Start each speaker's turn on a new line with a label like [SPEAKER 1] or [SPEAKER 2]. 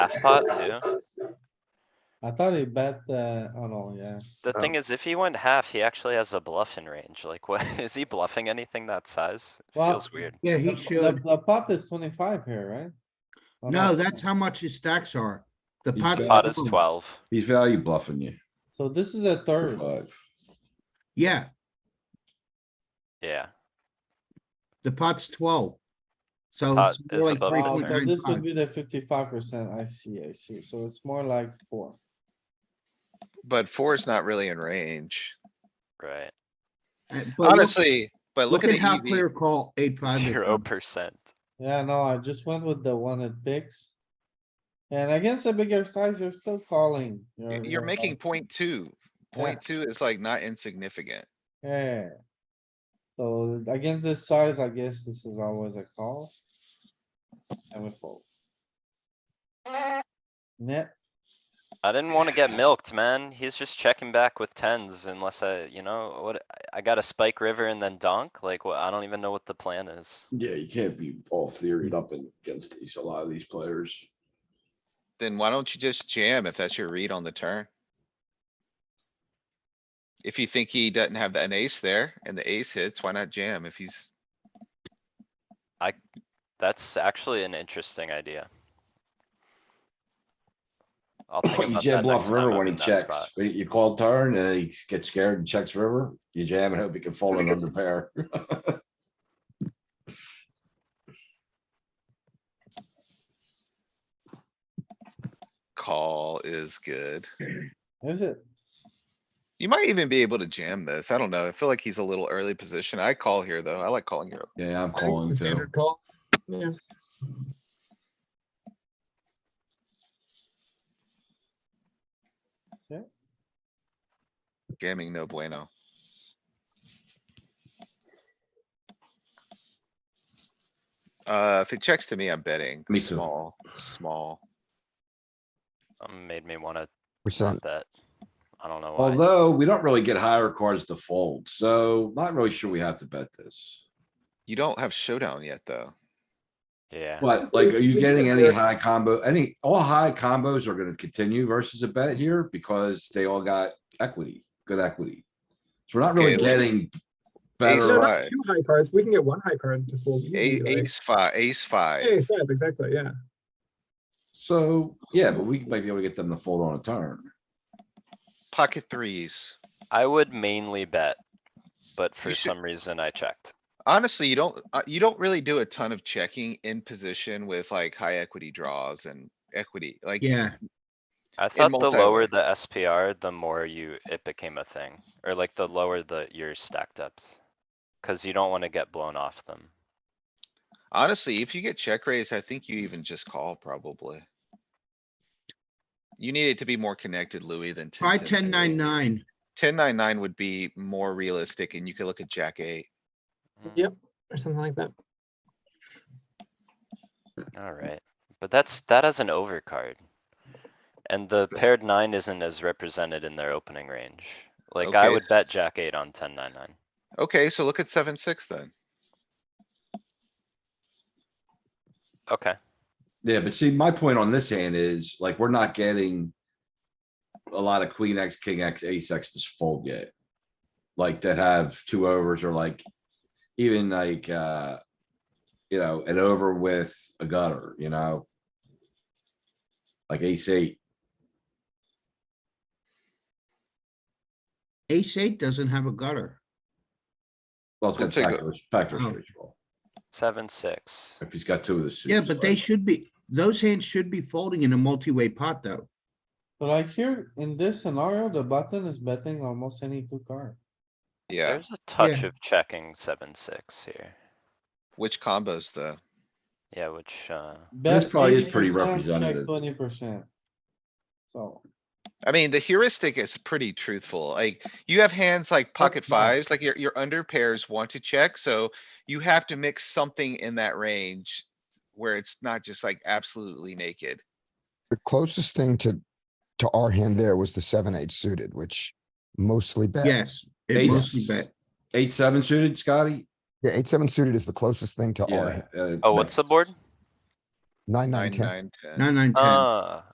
[SPEAKER 1] half pot too.
[SPEAKER 2] I thought he bet, uh, oh no, yeah.
[SPEAKER 1] The thing is, if he went half, he actually has a bluff in range. Like, what, is he bluffing anything that size? It
[SPEAKER 2] Well,
[SPEAKER 1] Feels weird.
[SPEAKER 3] Yeah, he
[SPEAKER 2] The- The,
[SPEAKER 3] should.
[SPEAKER 2] the pot is twenty-five here, right? Oh,
[SPEAKER 3] No, that's how much his stacks are. The
[SPEAKER 4] He's
[SPEAKER 3] pot's.
[SPEAKER 4] got-
[SPEAKER 1] Pot is
[SPEAKER 3] double.
[SPEAKER 1] twelve.
[SPEAKER 4] He's value bluffing you.
[SPEAKER 2] So this is a
[SPEAKER 4] for
[SPEAKER 2] third.
[SPEAKER 4] five.
[SPEAKER 3] Yeah,
[SPEAKER 1] Yeah,
[SPEAKER 3] the pot's twelve. So.
[SPEAKER 1] Pot
[SPEAKER 3] it's more
[SPEAKER 1] is
[SPEAKER 3] like
[SPEAKER 1] above
[SPEAKER 3] three
[SPEAKER 1] the
[SPEAKER 2] Oh,
[SPEAKER 3] point
[SPEAKER 2] so
[SPEAKER 1] turn.
[SPEAKER 3] nine
[SPEAKER 2] this would
[SPEAKER 3] five.
[SPEAKER 2] be the fifty-five percent. I see, I see. So it's more like four.
[SPEAKER 5] But four is not really in range.
[SPEAKER 1] right.
[SPEAKER 3] Uh, but look-
[SPEAKER 5] Honestly, but look at E
[SPEAKER 3] how
[SPEAKER 5] the
[SPEAKER 3] clear
[SPEAKER 5] EV.
[SPEAKER 3] call eight five. is.
[SPEAKER 1] Zero percent.
[SPEAKER 2] Yeah, no, I just went with the one that picks. And against a bigger size, you're still calling.
[SPEAKER 5] E Y- You're
[SPEAKER 2] like,
[SPEAKER 5] making point two. Point two is like not insignificant.
[SPEAKER 2] Yeah. So against this size, I guess this is always a call. And we fold. Net,
[SPEAKER 1] I didn't wanna get milked, man. He's just checking back with tens unless I, you know, what, I- I got a spike river and then donk. Like, what, I don't even know what the plan is.
[SPEAKER 4] Yeah, you can't be all theoried up against these, a lot of these players.
[SPEAKER 5] Then why don't you just jam if that's your read on the turn? If you think he doesn't have an ace there and the ace hits, why not jam if he's,
[SPEAKER 1] That's actually an interesting idea. I'll think
[SPEAKER 4] You
[SPEAKER 1] about
[SPEAKER 4] jam
[SPEAKER 1] that
[SPEAKER 4] bluff
[SPEAKER 1] next time
[SPEAKER 4] river
[SPEAKER 1] I'm
[SPEAKER 4] when he
[SPEAKER 1] in that
[SPEAKER 4] checks,
[SPEAKER 1] spot.
[SPEAKER 4] but you call turn and he gets scared and checks river, you jam and hope he can fold it under pair.
[SPEAKER 5] call is good.
[SPEAKER 2] is it?
[SPEAKER 5] You might even be able to jam this. I don't know. I feel like he's a little early position. I call here though. I like calling here.
[SPEAKER 4] Yeah, I'm calling too.
[SPEAKER 5] Jamming no bueno. Uh, if it checks to me, I'm betting.
[SPEAKER 4] Me too.
[SPEAKER 5] Small, small.
[SPEAKER 1] Um, Made me wanna
[SPEAKER 6] percent.
[SPEAKER 1] bet. I don't know why.
[SPEAKER 4] Although we don't really get higher cards to fold, so not really sure we have to bet this.
[SPEAKER 5] You don't have showdown yet, though.
[SPEAKER 1] Yeah.
[SPEAKER 4] But like, are you getting any high combo, any, all high combos are gonna continue versus a bet here because they all got equity, good equity. So we're not really
[SPEAKER 5] Okay, like-
[SPEAKER 4] getting
[SPEAKER 5] Ace
[SPEAKER 7] No,
[SPEAKER 4] better,
[SPEAKER 5] high.
[SPEAKER 7] not two high cards. We can get one high card to fold.
[SPEAKER 5] A-
[SPEAKER 7] easily, like-
[SPEAKER 5] Ace five, ace
[SPEAKER 7] Yeah,
[SPEAKER 5] five.
[SPEAKER 7] Ace five, exactly, yeah.
[SPEAKER 4] so, yeah, but we might be able to get them to fold on a turn.
[SPEAKER 5] Pocket threes.
[SPEAKER 1] I would mainly bet, but for
[SPEAKER 5] You should-
[SPEAKER 1] some reason I checked.
[SPEAKER 5] Honestly, you don't, uh, you don't really do a ton of checking in position with like high equity draws and equity, like.
[SPEAKER 3] Yeah,
[SPEAKER 1] I thought the lower
[SPEAKER 5] multi-way.
[SPEAKER 1] the SPR, the more you, it became a thing, or like the lower the, your stack depth. Cause you don't wanna get blown off them.
[SPEAKER 5] Honestly, if you get check raised, I think you even just call probably. You need it to be more connected, Louis, than.
[SPEAKER 3] try ten nine nine.
[SPEAKER 5] Ten nine nine would be more realistic and you could look at jack eight.
[SPEAKER 1] Mm,
[SPEAKER 7] Yep. Or something like that.
[SPEAKER 1] Alright, but that's, that has an overcard. And the paired nine isn't as represented in their opening range. Like I
[SPEAKER 5] Okay.
[SPEAKER 1] would bet jack eight on ten nine nine.
[SPEAKER 5] Okay, so look at seven, six then.
[SPEAKER 1] Okay,
[SPEAKER 4] Yeah, but see, my point on this hand is like, we're not getting a lot of queen X, king X, ace X to fold yet. Like that have two overs or like even like, uh, you know, an over with a gutter, you know? Like ace eight.
[SPEAKER 3] Ace eight doesn't have a gutter.
[SPEAKER 4] Well, it's
[SPEAKER 5] We'll
[SPEAKER 4] got
[SPEAKER 5] take a-
[SPEAKER 4] backdoor, backdoor
[SPEAKER 3] Oh.
[SPEAKER 4] straight draw.
[SPEAKER 1] seven, six.
[SPEAKER 4] If he's got two of the suits.
[SPEAKER 3] Yeah, but they
[SPEAKER 4] like-
[SPEAKER 3] should be, those hands should be folding in a multi-way pot though.
[SPEAKER 2] But like here, in this scenario, the button is betting almost any two card.
[SPEAKER 5] Yeah,
[SPEAKER 1] There's a touch of checking seven, six here.
[SPEAKER 5] which combos though?
[SPEAKER 1] Yeah, which, uh,
[SPEAKER 2] This
[SPEAKER 4] probably is pretty representative.
[SPEAKER 2] Twenty percent. So,
[SPEAKER 5] I mean, the heuristic is pretty truthful. Like you have hands like pocket
[SPEAKER 2] fine.
[SPEAKER 5] fives, like your, your under pairs want to check, so you have to mix something in that range. Where it's not just like absolutely naked.
[SPEAKER 6] The closest thing to, to our hand there was the seven, eight suited, which mostly bet.
[SPEAKER 3] Yes, it
[SPEAKER 4] Ace-
[SPEAKER 3] mostly bet.
[SPEAKER 4] Eight, seven suited, Scotty?
[SPEAKER 6] Oh, Yeah, eight, seven suited is the closest thing to our
[SPEAKER 4] Yeah.
[SPEAKER 6] hand.
[SPEAKER 4] uh,
[SPEAKER 1] oh,
[SPEAKER 4] no.
[SPEAKER 1] what's the board?
[SPEAKER 8] nine,
[SPEAKER 9] nine,
[SPEAKER 8] nine, ten.
[SPEAKER 9] nine, ten.
[SPEAKER 5] Nine, nine, ten.
[SPEAKER 1] Ah,